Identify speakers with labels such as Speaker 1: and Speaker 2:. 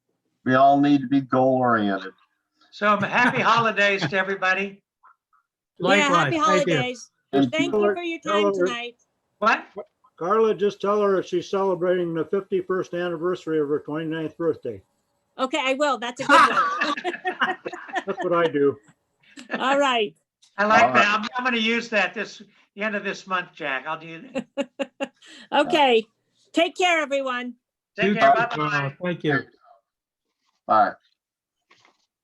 Speaker 1: we all need to be goal oriented.
Speaker 2: So um, happy holidays to everybody.
Speaker 3: Yeah, happy
Speaker 4: Likewise, thank you.
Speaker 3: holidays. Thank you for your time
Speaker 4: Hello.
Speaker 3: tonight.
Speaker 2: What?
Speaker 4: Carla, just tell her she's celebrating the 51st anniversary of her 29th birthday.
Speaker 3: Okay, I will. That's a good one.
Speaker 2: I
Speaker 4: That's what I do.
Speaker 3: All right.
Speaker 2: like that. I'm, I'm gonna use that this, the end of this month, Jack. I'll do.
Speaker 3: Okay. Take care, everyone.
Speaker 2: Take care. Bye-bye.
Speaker 4: Thank you.
Speaker 1: Bye.